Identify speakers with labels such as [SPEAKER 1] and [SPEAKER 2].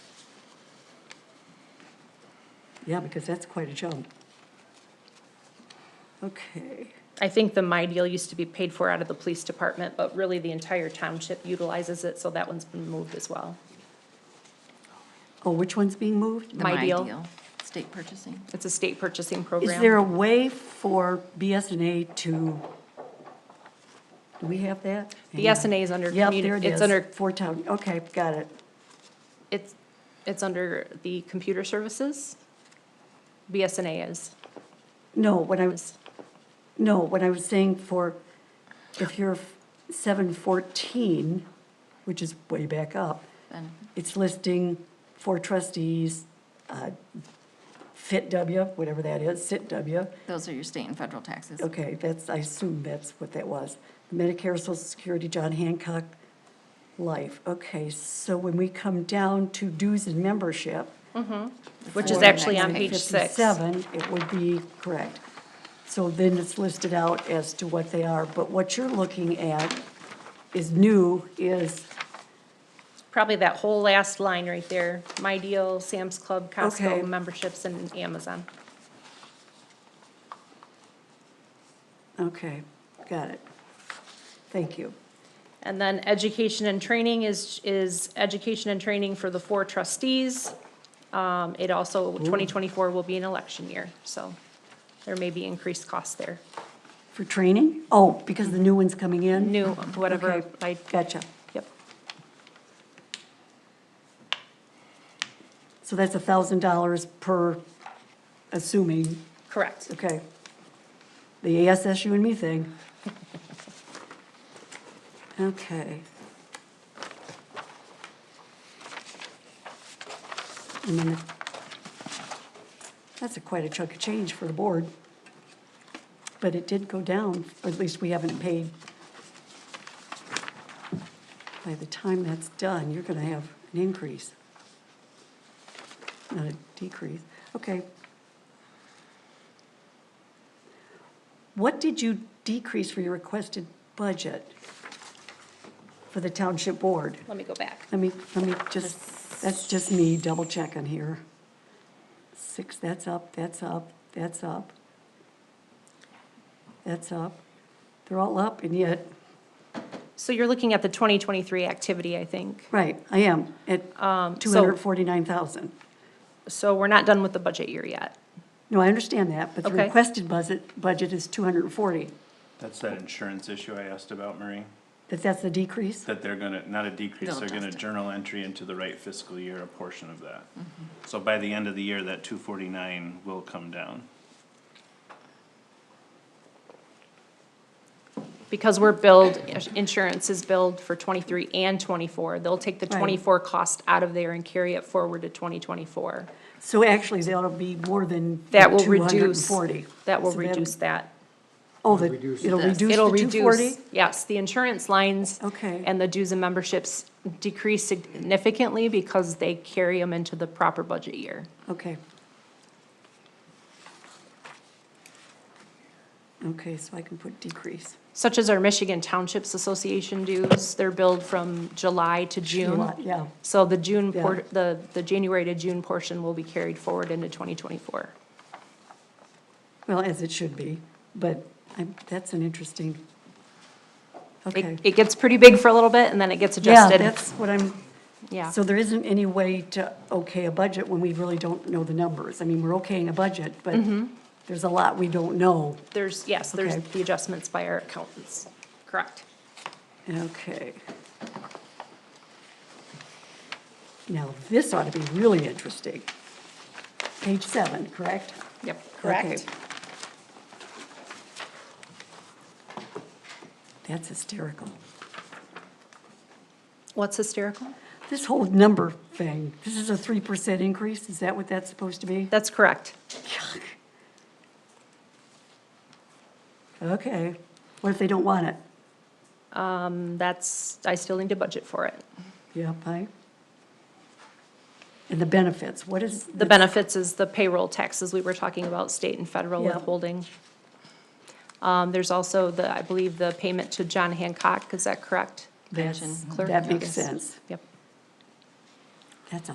[SPEAKER 1] Yeah, because that's quite a jump. Okay,
[SPEAKER 2] I think the My Deal used to be paid for out of the police department, but really the entire township utilizes it, so that one's been moved as well.
[SPEAKER 1] oh, which one's being moved?
[SPEAKER 2] My Deal.
[SPEAKER 3] State purchasing.
[SPEAKER 2] It's a state purchasing
[SPEAKER 1] Is there
[SPEAKER 2] program.
[SPEAKER 1] a way for BSNA to, do we have that?
[SPEAKER 2] The SNA is under,
[SPEAKER 1] Yep, there
[SPEAKER 2] communi-
[SPEAKER 1] it
[SPEAKER 2] it's
[SPEAKER 1] is,
[SPEAKER 2] under,
[SPEAKER 1] for town, okay, got it.
[SPEAKER 2] it's, it's under the computer services. BSNA is.
[SPEAKER 1] No, when I was, no, when I was saying for, if you're seven fourteen, which is way back up,
[SPEAKER 3] Then-
[SPEAKER 1] it's listing four trustees, uh, fit W, whatever that is, sit W.
[SPEAKER 3] Those are your state and federal taxes.
[SPEAKER 1] Okay, that's, I assume that's what that was. Medicare, Social Security, John Hancock, life. Okay, so when we come down to dues and membership.
[SPEAKER 2] Which is
[SPEAKER 1] for
[SPEAKER 2] actually on page six.
[SPEAKER 1] 57, it would be correct. So then it's listed out as to what they are, but what you're looking at is new, is,
[SPEAKER 2] Probably that whole last line right there, My Deal, Sam's Club,
[SPEAKER 1] Okay.
[SPEAKER 2] Costco, memberships, and Amazon.
[SPEAKER 1] okay, got it. Thank you.
[SPEAKER 2] And then education and training is, is education and training for the four trustees. Um, it also, twenty twenty-four will be an election year, so there may be increased costs there.
[SPEAKER 1] For training? Oh, because the new one's coming in?
[SPEAKER 2] New, whatever,
[SPEAKER 1] Okay,
[SPEAKER 2] I,
[SPEAKER 1] Gotcha.
[SPEAKER 2] yep,
[SPEAKER 1] So that's a thousand dollars per, assuming,
[SPEAKER 2] correct.
[SPEAKER 1] okay. The ASS you and me thing. Okay. And then, the- that's a quite a chunk of change for the board. But it did go down, or at least we haven't paid. By the time that's done, you're gonna have an increase not a decrease, okay. What did you decrease for your requested budget for the township board?
[SPEAKER 2] Let me go back.
[SPEAKER 1] Let me, let me just, that's just me double checking here. Six, that's up, that's up, that's up. That's up. They're all up and yet,
[SPEAKER 2] So you're looking at the twenty twenty-three activity, I think.
[SPEAKER 1] right, I am at
[SPEAKER 2] Um,
[SPEAKER 1] two hundred forty-nine thousand.
[SPEAKER 2] So we're not done with the budget year yet.
[SPEAKER 1] No, I understand that, but the
[SPEAKER 2] Okay.
[SPEAKER 1] requested budget, budget is two hundred and forty.
[SPEAKER 4] That's that insurance issue I asked about, Marie,
[SPEAKER 1] That that's the decrease?
[SPEAKER 4] that they're gonna, not a decrease,
[SPEAKER 3] They'll
[SPEAKER 4] they're gonna
[SPEAKER 3] adjust it.
[SPEAKER 4] journal entry into the right fiscal year, a portion of that. So by the end of the year, that two forty-nine will come down.
[SPEAKER 2] Because we're billed, insurance is billed for twenty-three and twenty-four. They'll take the
[SPEAKER 1] Right.
[SPEAKER 2] twenty-four cost out of there and carry it forward to twenty twenty-four.
[SPEAKER 1] So actually, that'll be more than two
[SPEAKER 2] That will
[SPEAKER 1] hundred and
[SPEAKER 2] reduce,
[SPEAKER 1] forty.
[SPEAKER 2] that will reduce that.
[SPEAKER 1] Oh, that,
[SPEAKER 5] Reduce
[SPEAKER 1] it'll
[SPEAKER 3] this.
[SPEAKER 1] reduce
[SPEAKER 2] It'll
[SPEAKER 1] the two forty?
[SPEAKER 2] reduce, yes, the insurance lines.
[SPEAKER 1] Okay.
[SPEAKER 2] And the dues and memberships decrease significantly because they carry them into the proper budget year.
[SPEAKER 1] Okay. Okay, so I can put decrease.
[SPEAKER 2] Such as our Michigan Townships Association dues, they're billed from July to June.
[SPEAKER 1] July, yeah.
[SPEAKER 2] So the June,
[SPEAKER 1] Yeah.
[SPEAKER 2] por- the, the January to June portion will be carried forward into twenty twenty-four.
[SPEAKER 1] Well, as it should be, but I'm, that's an interesting. Okay.
[SPEAKER 2] It, it gets pretty big for a little bit and then it gets
[SPEAKER 1] Yeah,
[SPEAKER 2] adjusted.
[SPEAKER 1] that's what I'm,
[SPEAKER 2] Yeah,
[SPEAKER 1] so there isn't any way to okay a budget when we really don't know the numbers. I mean, we're okaying a budget, but
[SPEAKER 2] Mm-hmm.
[SPEAKER 1] there's a lot we don't know.
[SPEAKER 2] there's, yes, there's
[SPEAKER 1] Okay.
[SPEAKER 2] the adjustments by our accountants, correct.
[SPEAKER 1] Okay. Now, this ought to be really interesting. Page seven, correct?
[SPEAKER 2] Yep,
[SPEAKER 1] Okay.
[SPEAKER 2] correct.
[SPEAKER 1] That's hysterical.
[SPEAKER 2] What's hysterical?
[SPEAKER 1] This whole number thing, this is a three percent increase, is that what that's supposed to be?
[SPEAKER 2] That's correct.
[SPEAKER 1] Okay, what if they don't want it?
[SPEAKER 2] That's, I still need to budget for it.
[SPEAKER 1] Yep, I. And the benefits, what is?
[SPEAKER 2] The benefits is the payroll taxes we were talking about, state and federal
[SPEAKER 1] Yeah.
[SPEAKER 2] withholding. Um, there's also the, I believe, the payment to John Hancock, is that correct?
[SPEAKER 1] That's-
[SPEAKER 3] Pension.
[SPEAKER 1] That makes
[SPEAKER 2] Yes.
[SPEAKER 1] sense.
[SPEAKER 2] Yep.